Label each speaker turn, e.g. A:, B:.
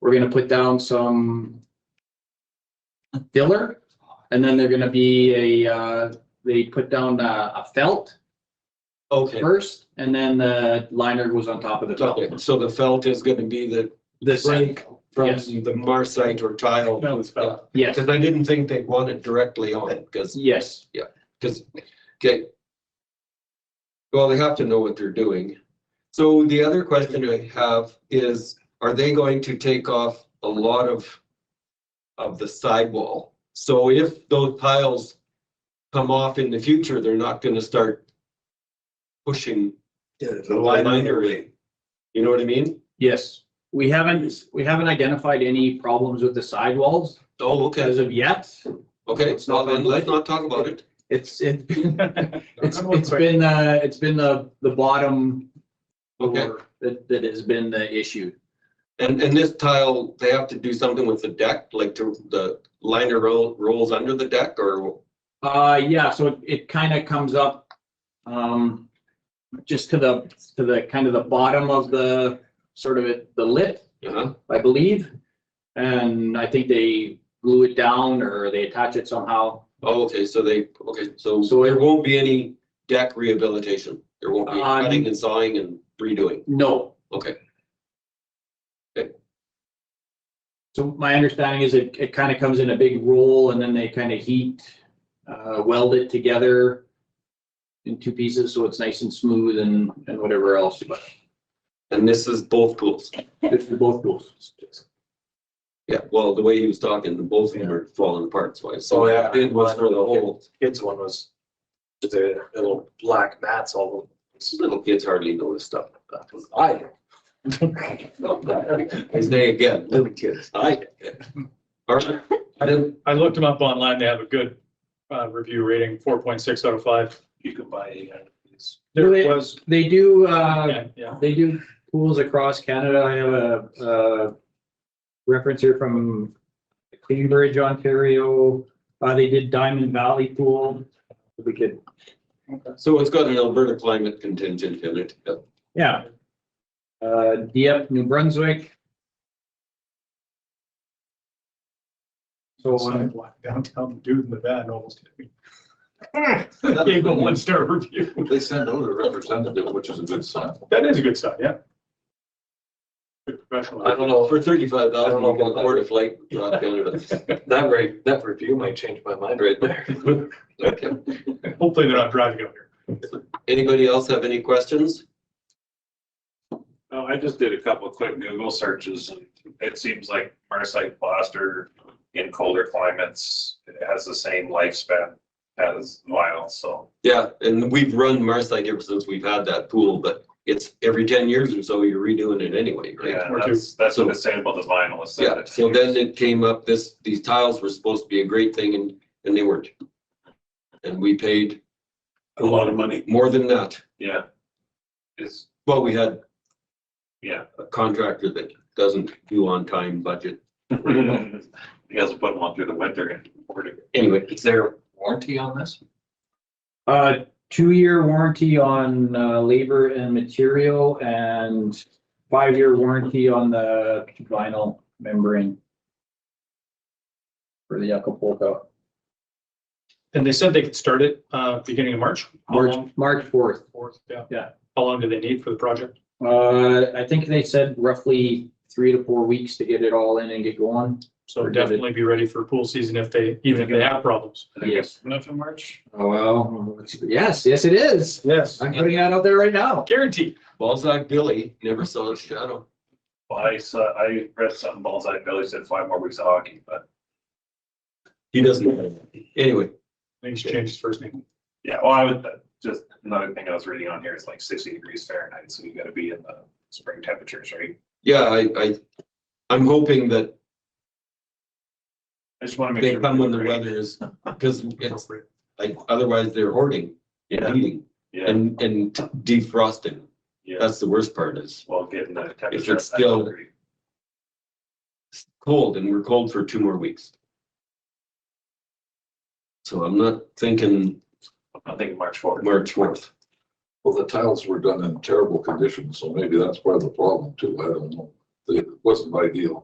A: We're gonna put down some filler, and then they're gonna be a, uh, they put down uh, a felt
B: Okay,
A: first, and then the liner goes on top of the felt.
B: so so the felt is gonna be the,
A: The same,
B: break from
A: Yes.
B: the marsite or tile.
C: No, it's felt.
A: yes,
B: Because I didn't think they wanted directly on it, because,
A: yes,
B: because, okay. Well, they have to know what they're doing. So the other question I have is, are they going to take off a lot of of the sidewall? So if those tiles come off in the future, they're not gonna start pushing the liner in. You know what I mean?
A: yes. We haven't, we haven't identified any problems with the sidewalls
B: Oh, okay,
A: as of yet.
B: okay, well, then let's not talk about it.
A: It's, it's been, it's, it's been, uh, it's been the, the bottom
B: Okay.
A: floor that, that has been the issue.
B: And, and this tile, they have to do something with the deck, like to, the liner roll, rolls under the deck or?
A: Uh, yeah, so it, it kind of comes up, um, just to the, to the, kind of the bottom of the, sort of it- the lip,
B: uh-huh.
A: I believe. And I think they glue it down or they attach it somehow.
B: Oh, okay, so they, okay, so,
A: So
B: so
A: it-
B: there won't be any deck rehabilitation. There won't be
A: Uh,
B: cutting and sawing and redoing.
A: No.
B: Okay. Okay.
A: So my understanding is it, it kind of comes in a big roll and then they kind of heat, uh, weld it together in two pieces, so it's nice and smooth and, and whatever else, but
B: And this is both pools.
A: it's for both pools.
B: Yeah, well, the way he was talking, the both of them are falling apart, so I saw
C: Oh, yeah.
B: it was for the whole,
C: Kids one was, the little black mats all over.
B: little kids hardly notice stuff like that.
C: I.
B: His name again,
C: Little kids.
B: I. All right, I didn't,
D: I looked them up online. They have a good uh, review rating, four point six out of five.
C: You could buy eight hundred of these.
D: There
A: Really?
D: was,
A: They do, uh,
D: yeah, yeah.
A: They do pools across Canada. I have a, uh reference here from Cambridge, Ontario. Uh, they did Diamond Valley Pool. We could,
B: so it's got an Alberta climate contingent in it. Yeah.
A: yeah. Uh, Dieppe, New Brunswick. So, um,
D: Sidewalk Downtown dude in the van almost. hit me. Gave them one star review.
E: They send out a representative, which is a good sign.
D: That is a good sign, yeah. Good professional.
C: I don't know,
B: For thirty-five
C: I
B: thousand,
C: don't know
B: you can
C: about
B: afford a flight. not Canada.
C: that re that review might change my mind right there.
B: Okay.
D: Hopefully they're not driving up here.
B: Anybody else have any questions?
F: No, Oh, I just did a couple of quick Google searches and it seems like Marsite plaster in colder climates has the same lifespan as vinyl, so.
B: Yeah, and we've run Marsite ever since we've had that pool, but it's every ten years or so, you're redoing it anyway, right?
F: Yeah, that's, that's what
B: So-
F: it's saying about the vinyl. is that
B: Yeah,
F: it-
B: so then it came up, this, these tiles were supposed to be a great thing and, and they weren't. And we paid
F: A lot of money.
B: more than that.
F: Yeah. Is,
B: Well, we had
F: yeah.
B: a contractor that doesn't do on-time budget.
F: You guys will put them on through the winter and.
B: Anyway, it's there.
E: Warranty on this?
A: uh, two-year warranty on, uh, labor and material and five-year warranty on the vinyl membrane. For the Acapulco.
D: And they said they could start it uh, beginning of March. How
A: March,
D: long-
A: March fourth.
D: Fourth, yeah.
A: Yeah.
D: How long do they need for the project?
A: Uh, I think they said roughly three to four weeks to get it all in and get going.
D: So
A: We're good.
D: definitely be ready for pool season if they, even if they have problems.
A: Yes.
F: Enough in March?
A: Oh, well, yes, yes, it is.
D: Yes.
A: I'm putting that out there right now.
D: Guaranteed.
B: Balzac Billy never saw a shadow.
F: I saw, I read something, Balzai Billy said five more weeks of hockey, but
B: He doesn't. Anyway,
D: Things changed his first name.
F: yeah, well, I would, uh, just another thing I was reading on here is like sixty degrees Fahrenheit, so you gotta be in the spring temperatures, right?
B: yeah, I, I, I'm hoping that
F: I just want to make
B: They
F: sure.
B: come when the weather is, because it's, like, otherwise they're hoarding, and
F: Yeah,
B: heating,
F: yeah,
B: and, and defrosting.
F: yeah.
B: That's the worst part is
F: Well, given the temperature.
B: it's
F: I would
B: still-
F: agree.
B: cold, and we're cold for two more weeks. So I'm not thinking
F: I think March fourth.
B: March fourth.
E: Well, the tiles were done in terrible condition, so maybe that's part of the problem too. I don't know. It wasn't ideal.